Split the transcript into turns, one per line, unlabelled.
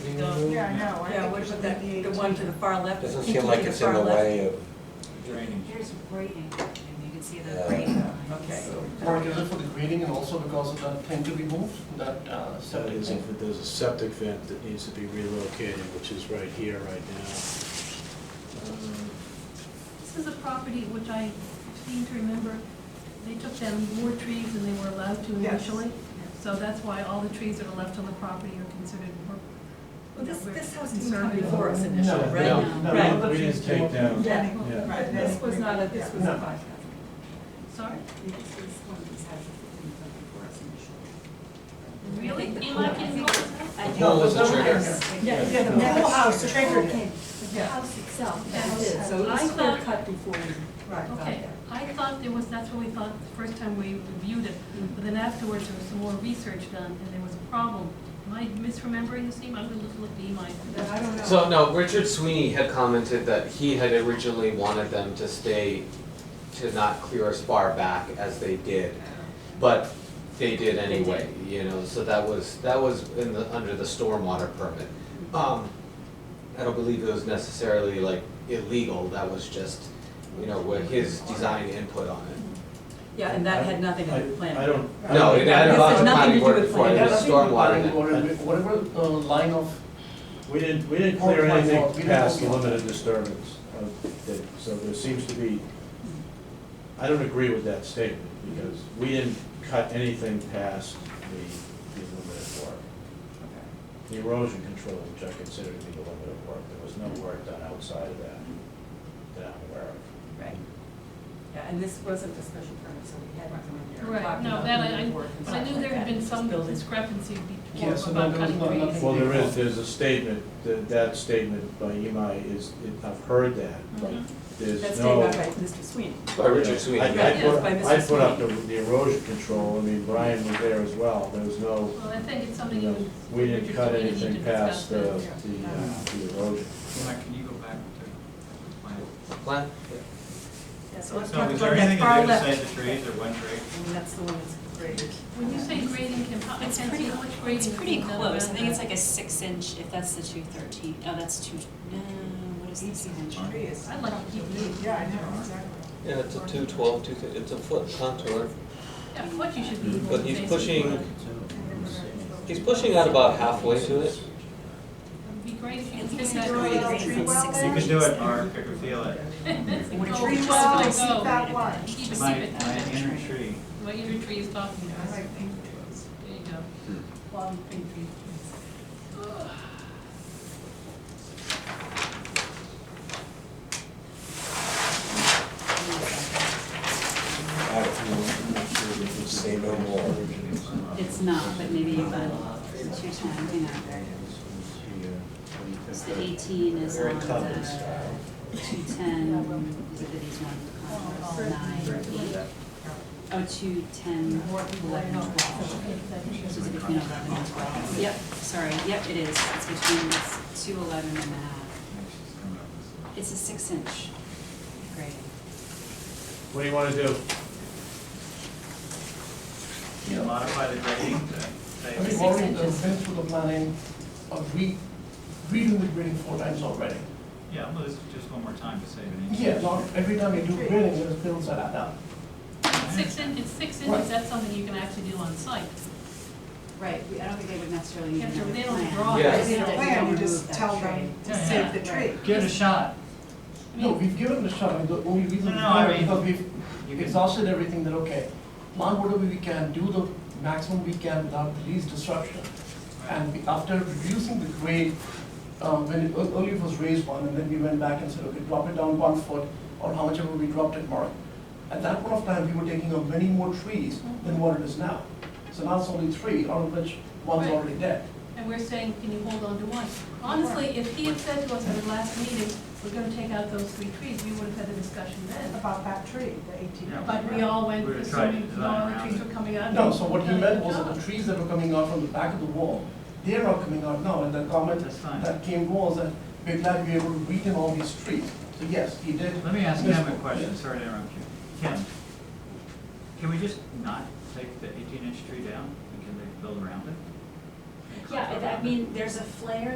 don't.
Yeah, I know. Oh, I
Yeah,
think
which
it
is
would
that,
be
the one to the far left.
Doesn't
pinky
seem
to
like it's in
far
the
left.
way of,
drainage.
Here's grading, and you can see the
Yeah.
grading lines.
Okay.
Or is it for the grading and also because of that thing to be moved, that uh,
So
septic
there's a,
thing?
there's a septic vent that needs to be relocated, which is right here, right now. Um,
This is a property which I seem to remember, they took down more trees than they were allowed to
Yes.
initially. So that's why all the trees that are left on the property are considered more.
Well, this,
we're
this house didn't come
conservative.
before us
No,
initially,
no,
right?
no,
Right.
none of
We
the
didn't
trees
take
came up.
down-
Yeah,
Yeah.
Right,
And this was not a, this was a
No.
bypass.
Sorry?
This is one of these houses that didn't come before us initially. I
Really?
think the
Eli,
pool-
can you
I
go
think- I
No,
do.
there's no trigger.
Yeah, yeah, the
Yeah.
whole house
Yeah.
triggered it.
Okay, the
Yeah.
house itself,
Yeah.
that is, so it
I
was clear
thought-
cut before we.
Right.
Okay, I thought there was, that's what we thought the first time we reviewed it, but then afterwards, there was some more research done, and there was a problem. Am I misremembering this name? I'm gonna look- look at Eli.
I don't know.
So no, Richard Sweeney had commented that he had originally wanted them to stay, to not clear as far back as they did. But they did anyway, you know, so that was, that was in the, under the stormwater permit. Um, I don't believe it was necessarily like illegal, that was just, you know, what his design input on it.
Yeah, and that had nothing to do with
I-
planning.
I don't. I
No, it had
This
about
had nothing
the
to
planning
do
board
with
before, it
planning.
was stormwater in it.
Whatever, whatever uh, line of,
We didn't, we didn't clear
Oh, my fault.
anything
We didn't
past the
talk about
limited disturbance of, the- so there seems to be, I don't agree with that statement, because we didn't cut anything past the, the limited work. The erosion control, which I consider to be the limited work, there was no work done outside of that, that I'm aware of.
Right. Yeah, and this wasn't a special permit, so we had to go in there. and
Right,
talk
no,
about
that
the
I, I,
work and
but I
stuff
knew
like
there had
that.
been some
Building.
discrepancy before
Yes, and
about
there was
cutting
no-
trees.
nothing
Well, there is, there's a statement, that, that statement by Imai is, it- I've heard that, but
Mhm.
there's no.
That's stated by Mr. Sweeney.
By Richard Sweeney,
I- I
yeah.
put-
By Mr.
I put up the the erosion control, I mean, Brian was there as well, there was no,
Well, I think it's something
you
you.
know,
would-
we didn't cut
we need to
anything
discuss
past the, the
that.
uh, the erosion. Well, I- I-
Can you go back to plan?
Plan?
Yeah, so let's
So
talk
is there
about that
anything
far
to do
left.
besides the trees or one tree?
I mean, that's the one that's graded.
When you say grading, Kim, how- I can't
It's
see
pretty,
how much grading.
it's
is
pretty
done
close, I
around
think it's
that.
like a six inch, if that's the two thirteen, oh, that's two, no, what is this?
I'd like to keep it.
Yeah, I know, exactly.
yeah, it's a two twelve, two, it's a foot contour.
Yeah, what you should be. able
But
to
he's
say.
pushing- He's pushing out about halfway to it.
It'd be great if you
At
could
least
take
the
that.
drawing
grading.
is
grading is
well
six
there?
You
inches.
can do it, Mark, I can feel it.
Go,
Tree
just
well,
let it
keep
Oh, go.
that one.
Keep it
My,
separate,
my
that
inner
tree.
tree.
What your tree is
I
talking about. There
like pink trees.
you go.
Hmm.
Long pink tree.
Say no more.
It's not, but maybe if I it's your time, you know. So eighteen is
Very
on the
common style.
two-ten, is it these one, Congress, nine, eight, oh, two-ten, eleven, twelve. So it's between eleven and twelve. Yep, sorry, yep, it is, it's between, it's two eleven and a half. It's a six-inch grade.
What do you wanna do?
You modify the grading to say.
I mean, already the fence for the planning, uh, we, we do the grading four times already.
Yeah, well, this is just one more time to save an inch.
Yeah, not every time you do grading, there's bills that add up.
It's Six in, it's six inches, that's something you can actually do on site.
Right, we- I don't think they would necessarily
You
need
have to-
another
they don't
plan.
draw it.
Yeah.
If you don't plan, you
remove
just
that
tell
tree.
them to
Yeah,
save
yeah.
the tree.
Give it a shot.
I
No,
mean,
we've given it a shot, and the only reason.
No,
we
no, I
haven't
mean,
Because
you
we've
can-
exhausted everything, that okay, plan whatever we can, do the maximum we can without the least disruption. And we- after reducing the grade, um, when it, ear- earlier it was raised one, and then we went back and said, okay, drop it down one foot, or how much ever we dropped it more. At that point of time, we were taking up many more trees than what it is now. So now it's only three, out of which one's
Right.
already dead.
And we're saying, can you hold on to one? Honestly, if he had said to us at the last meeting, we're gonna take out those three trees, we would have had a discussion then.
About that tree, the eighteen.
Yeah.
But we all went,
We were trying to
assuming
design
all the
around
trees
it.
were coming out.
No, so what he
Done a
meant
good
was
job.
that the trees that were coming out from the back of the wall, they're not coming out now, and the comment
That's fine.
that came was that we're glad we were able to weaken all these trees. So yes, he did.
Let me ask Kim
Yes.
a question, sorry to interrupt you. Kim, can we just not take the eighteen inch tree down? And Can they build around it?
Yeah, I I mean, there's a flare